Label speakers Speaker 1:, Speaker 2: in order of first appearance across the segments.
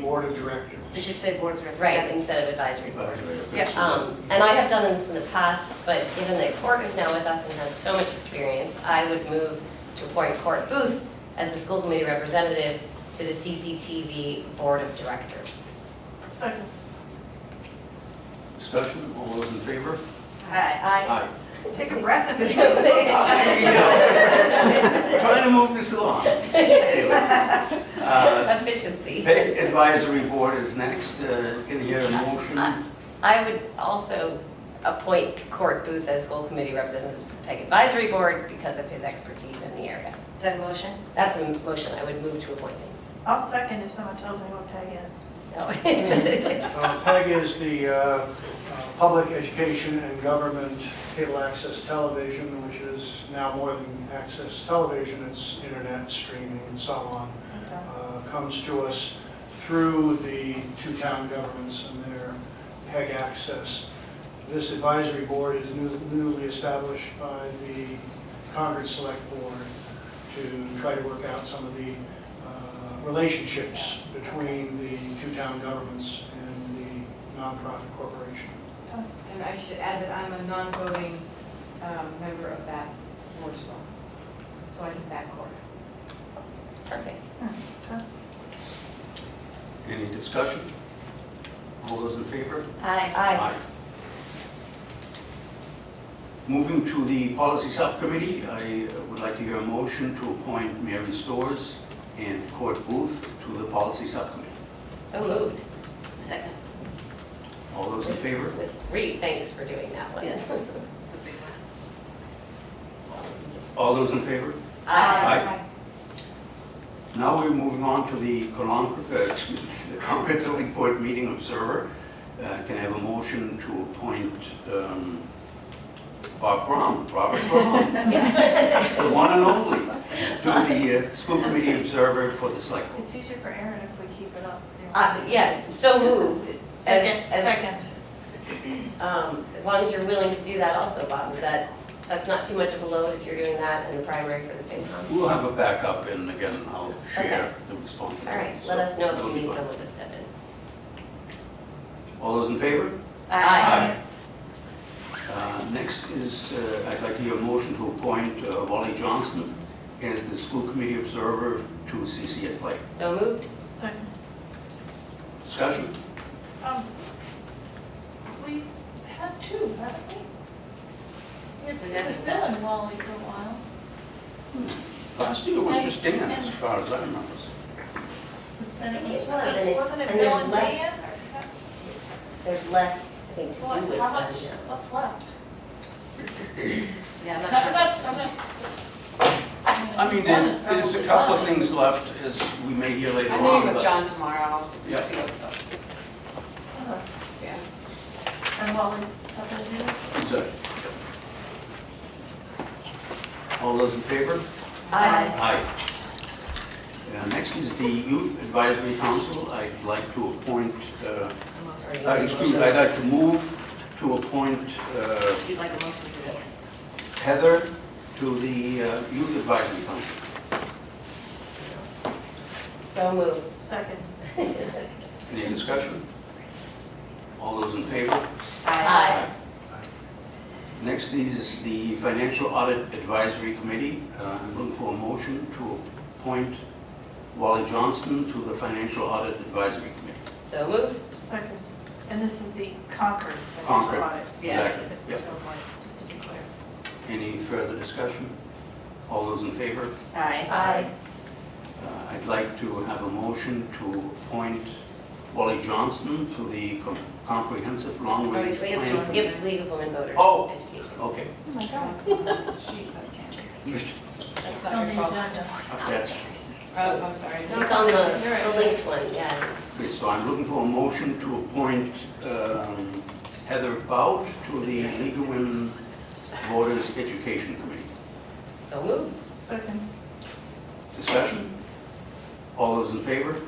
Speaker 1: Board of Directors.
Speaker 2: We should say board of directors.
Speaker 3: Right, instead of advisory board.
Speaker 2: Yeah.
Speaker 3: Um, And I have done this in the past, but given that Court is now with us and has so much experience, I would move to appoint Court Booth as the school committee representative to the CCTV Board of Directors.
Speaker 4: Second.
Speaker 5: Discussion, all those in favor?
Speaker 2: Aye.
Speaker 5: Aye.
Speaker 4: Take a breath and.
Speaker 5: Trying to move this along. Anyway, uh,
Speaker 3: Efficiency.
Speaker 5: Pay Advisory Board is next, Uh, can I hear a motion?
Speaker 3: I would also appoint Court Booth as school committee representative to the PEG Advisory Board because of his expertise in the area.
Speaker 2: Is that a motion?
Speaker 3: That's a motion I would move to appoint him.
Speaker 4: I'll second if someone tells me what tag is.
Speaker 3: No.
Speaker 1: Uh, PEG is the uh, uh, Public Education and Government Cable Access Television, which is now more than access television, it's internet streaming and so on.
Speaker 4: Okay.
Speaker 1: uh, comes to us through the two town governments and their PEG access. This advisory board is new- newly established by the Concord Select Board to try to work out some of the uh, relationships between the two town governments and the nonprofit corporation.
Speaker 6: And I should add that I'm a non-voting um, member of that board as well, so I can backcourt.
Speaker 3: Perfect.
Speaker 5: Any discussion? All those in favor?
Speaker 2: Aye.
Speaker 3: Aye.
Speaker 5: Moving to the Policy Subcommittee, I uh, would like to hear a motion to appoint Mary Stores and Court Booth to the Policy Subcommittee.
Speaker 3: So moved.
Speaker 2: Second.
Speaker 5: All those in favor?
Speaker 3: Reed, thanks for doing that one.
Speaker 2: Yeah.
Speaker 5: All those in favor?
Speaker 3: Aye.
Speaker 5: Aye. Now we're moving on to the Concord, uh, excuse me, the Concord Select Board Meeting Observer. Uh, Can I have a motion to appoint um, Bob Crum, Robert Crum, the one and only, to the uh, School Committee Observer for the Select Board?
Speaker 4: It's easier for Aaron if we keep it up.
Speaker 3: Uh, Yes, so moved.
Speaker 4: Second,
Speaker 3: As- as-
Speaker 4: second.
Speaker 3: um, As long as you're willing to do that also, Bob, is that, that's not too much of a load if you're doing that in the primary for the FinCom?
Speaker 5: We'll have a backup and again, I'll share the
Speaker 3: All
Speaker 5: responsibility.
Speaker 3: right, let us know if
Speaker 5: So
Speaker 3: you
Speaker 5: it'll be
Speaker 3: need
Speaker 5: fun.
Speaker 3: someone to step in.
Speaker 5: All those in favor?
Speaker 3: Aye.
Speaker 5: Uh, Next is, uh, I'd like to hear a motion to appoint uh, Wally Johnson as the school committee observer to CC at Play.
Speaker 3: So moved.
Speaker 4: Second.
Speaker 5: Discussion?
Speaker 4: Um, We had two, haven't we?
Speaker 2: We
Speaker 4: It
Speaker 2: had
Speaker 4: was
Speaker 2: two.
Speaker 4: Bill and Wally for a while.
Speaker 5: Last year was just Dan, as far as I remember.
Speaker 4: And it
Speaker 3: It
Speaker 4: was,
Speaker 3: was, and it's-
Speaker 4: wasn't it
Speaker 3: and
Speaker 4: Bill
Speaker 3: there's
Speaker 4: and
Speaker 3: less
Speaker 4: Dan? or-
Speaker 3: There's less, I think, to do
Speaker 4: What,
Speaker 3: with.
Speaker 4: how
Speaker 3: one
Speaker 4: much,
Speaker 3: now.
Speaker 4: what's left?
Speaker 2: Yeah, I'm
Speaker 4: Not
Speaker 2: not sure.
Speaker 4: much, I'm not.
Speaker 5: I mean,
Speaker 4: one is
Speaker 5: there- there's a
Speaker 4: probably
Speaker 5: couple of
Speaker 4: done.
Speaker 5: things left, as we may hear later
Speaker 6: I'm meeting
Speaker 5: on,
Speaker 6: with
Speaker 5: but
Speaker 6: John tomorrow, I'll
Speaker 5: Yeah.
Speaker 6: see what's up.
Speaker 4: Uh-huh.
Speaker 6: Yeah.
Speaker 4: And Wally's up in the news.
Speaker 5: Exactly. All those in favor?
Speaker 3: Aye.
Speaker 5: Aye. Uh, Next is the Youth Advisory Council. I'd like to appoint, uh,
Speaker 2: Or you
Speaker 5: uh,
Speaker 2: need a
Speaker 5: excuse me,
Speaker 2: motion?
Speaker 5: I'd like to move to appoint uh,
Speaker 2: She'd like a motion to do it.
Speaker 5: Heather to the uh, Youth Advisory Council.
Speaker 3: So moved.
Speaker 4: Second.
Speaker 5: Any discussion? All those in favor?
Speaker 3: Aye.
Speaker 5: Next is the Financial Audit Advisory Committee. Uh, I'm looking for a motion to appoint Wally Johnston to the Financial Audit Advisory Committee.
Speaker 3: So moved.
Speaker 4: Second. And this is the Concord
Speaker 5: Concord.
Speaker 4: financial audit.
Speaker 6: Yeah.
Speaker 5: Exactly.
Speaker 4: So,
Speaker 5: Yep.
Speaker 4: like, just to be clear.
Speaker 5: Any further discussion? All those in favor?
Speaker 6: Aye.
Speaker 3: Aye.
Speaker 5: Uh, I'd like to have a motion to appoint Wally Johnston to the Com- Comprehensive Long
Speaker 6: Oh, you
Speaker 5: Range
Speaker 6: skipped
Speaker 5: Plan.
Speaker 3: We skipped League of Women Voters.
Speaker 5: Oh.
Speaker 3: Education.
Speaker 5: Okay.
Speaker 4: Oh, my God.
Speaker 6: That's that's not your fault.
Speaker 5: That's-
Speaker 6: Oh, I'm sorry.
Speaker 3: No, It's on the, the linked one, yeah.
Speaker 5: Okay, so I'm looking for a motion to appoint um, Heather Bout to the League of Women Voters Education Committee.
Speaker 3: So moved.
Speaker 4: Second.
Speaker 5: Discussion? All those in favor?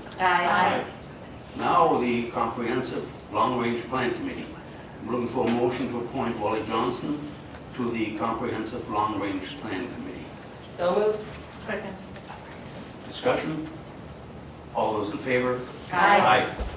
Speaker 5: Now, the Comprehensive Long Range Plan Committee. I'm looking for a motion to appoint Wally Johnson to the Comprehensive Long Range Plan Committee.
Speaker 3: So moved.
Speaker 4: Second.
Speaker 5: Discussion? All those in favor?
Speaker 3: Aye.